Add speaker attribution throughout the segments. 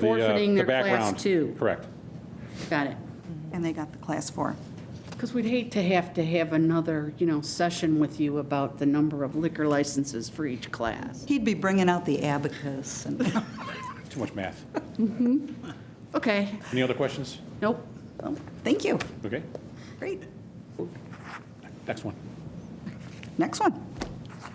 Speaker 1: the, uh,
Speaker 2: Forfeiting
Speaker 1: the
Speaker 2: their class
Speaker 1: background.
Speaker 2: two.
Speaker 1: Correct.
Speaker 2: Got it.
Speaker 3: And they got the class four.
Speaker 2: Because we'd hate to have to have another, you know, session with you about the number of liquor licenses for each class.
Speaker 3: He'd be bringing out the abacus and,
Speaker 1: Too much math.
Speaker 2: Okay,
Speaker 1: Any other questions?
Speaker 2: nope.
Speaker 3: Oh, thank you.
Speaker 1: Okay,
Speaker 3: Great.
Speaker 1: next one.
Speaker 3: Next one.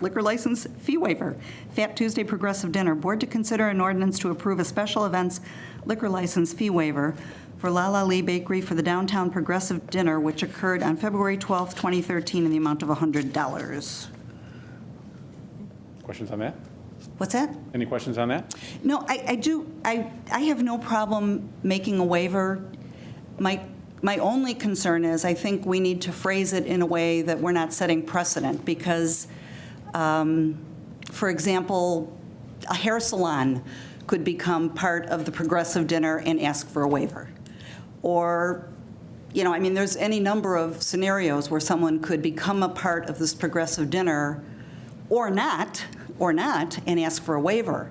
Speaker 3: Liquor license fee waiver. Fat Tuesday Progressive Dinner. Board to consider an ordinance to approve a special events liquor license fee waiver for La La Lee Bakery for the Downtown Progressive Dinner, which occurred on February 12, 2013, in the amount of $100.
Speaker 1: Questions on that?
Speaker 3: What's that?
Speaker 1: Any questions on that?
Speaker 3: No, I, I do, I, I have no problem making a waiver. My, my only concern is, I think we need to phrase it in a way that we're not setting precedent, because, um, for example, a hair salon could become part of the progressive dinner and ask for a waiver. Or, you know, I mean, there's any number of scenarios where someone could become a part of this progressive dinner or not, or not, and ask for a waiver.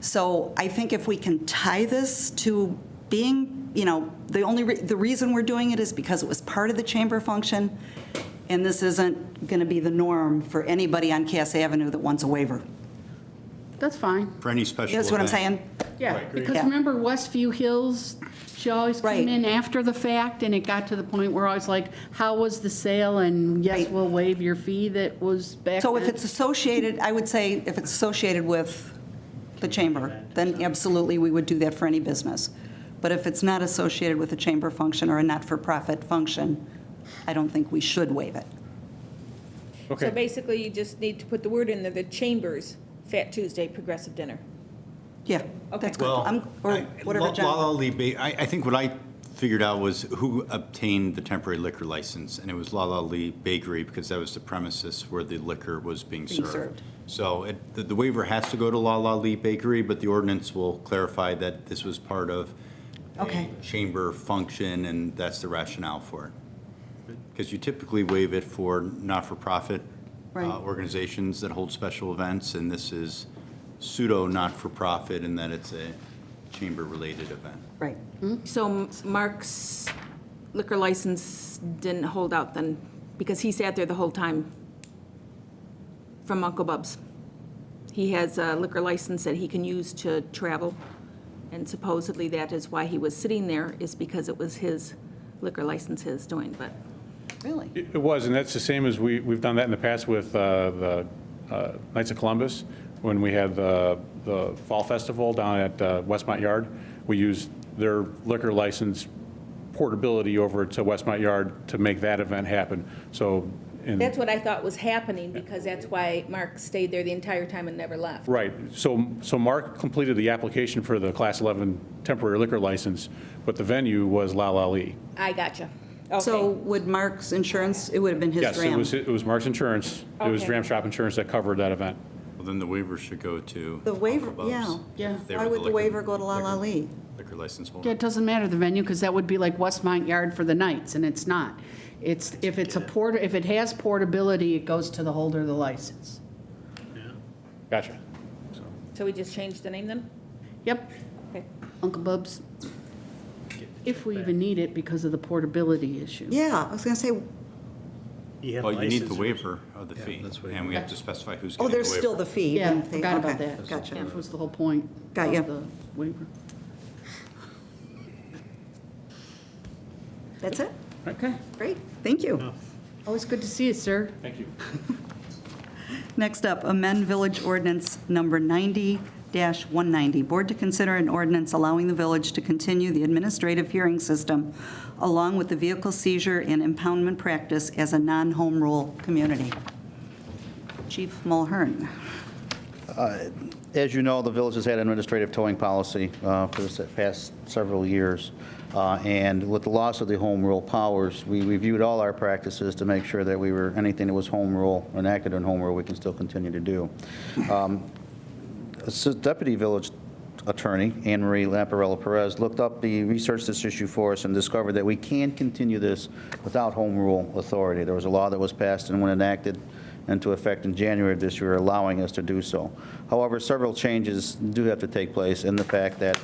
Speaker 3: So I think if we can tie this to being, you know, the only, re- the reason we're doing it is because it was part of the chamber function, and this isn't going to be the norm for anybody on Cass Avenue that wants a waiver.
Speaker 2: That's fine.
Speaker 4: For any special
Speaker 3: That's what I'm
Speaker 4: event.
Speaker 3: saying?
Speaker 2: Yeah, because
Speaker 3: Yeah.
Speaker 2: remember Westview Hills, she always
Speaker 3: Right.
Speaker 2: came in after the fact, and it got to the point where I was like, how was the sale? And yes,
Speaker 3: Right.
Speaker 2: we'll waive your fee that was back
Speaker 3: So if
Speaker 2: then.
Speaker 3: it's associated, I would say if it's associated with the chamber, then absolutely, we would do that for any business. But if it's not associated with a chamber function or a not-for-profit function, I don't think we should waive it.
Speaker 5: So
Speaker 1: Okay,
Speaker 5: basically, you just need to put the word in there, the Chambers Fat Tuesday Progressive Dinner.
Speaker 3: Yeah, that's good. I'm- Or
Speaker 4: Well, I-
Speaker 3: whatever,
Speaker 4: La-
Speaker 3: John.
Speaker 4: La La Lee Ba- I, I think what I figured out was who obtained the temporary liquor license, and it was La La Lee Bakery, because that was the premises where the liquor was being
Speaker 3: Being served.
Speaker 4: served. So it, the- the waiver has to go to La La Lee Bakery, but the ordinance will clarify that this was part of
Speaker 3: Okay.
Speaker 4: a chamber function, and that's the rationale for it. Because you typically waive it for not-for-profit uh,
Speaker 3: Right.
Speaker 4: organizations that hold special events, and this is pseudo not-for-profit in that it's a chamber-related event.
Speaker 3: Right.
Speaker 2: Hmm?
Speaker 6: So M- Mark's liquor license didn't hold out then, because he sat there the whole time from Uncle Bub's. He has a liquor license that he can use to travel, and supposedly that is why he was sitting there, is because it was his liquor license, his doing, but
Speaker 3: Really?
Speaker 1: it it was, and that's the same as we, we've done that in the past with uh, the uh, Knights of Columbus, when we had the, the Fall Festival down at uh, Westmont Yard. We used their liquor license portability over to Westmont Yard to make that event happen. So, in
Speaker 5: That's what I thought was happening, because that's why Mark stayed there the entire time and never left.
Speaker 1: Right, so, so Mark completed the application for the Class 11 temporary liquor license, but the venue was La La Lee.
Speaker 5: I gotcha.
Speaker 3: So
Speaker 5: Okay,
Speaker 3: would Mark's insurance, it would have been his
Speaker 1: Yes, it
Speaker 3: dram.
Speaker 1: was, it was Mark's insurance, it was
Speaker 5: Okay.
Speaker 1: Dram Shop Insurance that covered that event.
Speaker 4: Well, then the waiver should go to.
Speaker 3: The waiver-
Speaker 4: Uncle Bob's,
Speaker 3: yeah.
Speaker 2: Yeah.
Speaker 4: if they
Speaker 3: Why
Speaker 4: were
Speaker 3: would the
Speaker 4: liquor-
Speaker 3: waiver go to La La
Speaker 4: liquor-
Speaker 3: Lee?
Speaker 4: Liquor license
Speaker 2: Yeah,
Speaker 4: holder.
Speaker 2: it doesn't matter the venue, because that would be like Westmont Yard for the Knights, and it's not. It's, if it's a port, if it has portability, it goes to the holder of the license.
Speaker 1: Gotcha.
Speaker 5: so we just changed the name then?
Speaker 2: Yep,
Speaker 5: Okay.
Speaker 2: Uncle Bub's, if we even need it because of the portability issue.
Speaker 3: Yeah, I was going to say, oh,
Speaker 4: Well, you need the waiver of the fee, and we have to specify who's
Speaker 3: oh,
Speaker 4: getting the waiver.
Speaker 3: there's still the fee.
Speaker 2: Yeah,
Speaker 3: and they-
Speaker 2: forgot about
Speaker 3: okay,
Speaker 2: that.
Speaker 3: Gotcha.
Speaker 2: Which was the whole point
Speaker 3: Got
Speaker 2: of
Speaker 3: ya.
Speaker 2: the waiver.
Speaker 3: That's it?
Speaker 2: Okay.
Speaker 3: Great, thank you.
Speaker 2: Always good to see you, sir.
Speaker 1: Thank you.
Speaker 3: Next up, amend Village Ordinance Number 90-190. Board to consider an ordinance allowing the village to continue the administrative hearing system along with the vehicle seizure and impoundment practice as a non-home rule community. Chief Mulhern.
Speaker 7: As you know, the village has had an administrative towing policy uh, for the past several years. Uh, And with the loss of the home rule powers, we reviewed all our practices to make sure that we were, anything that was home rule, enacted in home rule, we can still continue to do. Assi- Deputy Village Attorney Anne Marie Lamparello Perez looked up the, researched this issue for us and discovered that we can continue this without home rule authority. There was a law that was passed and when enacted into effect in January of this year, allowing us to do so. However, several changes do have to take place in the fact that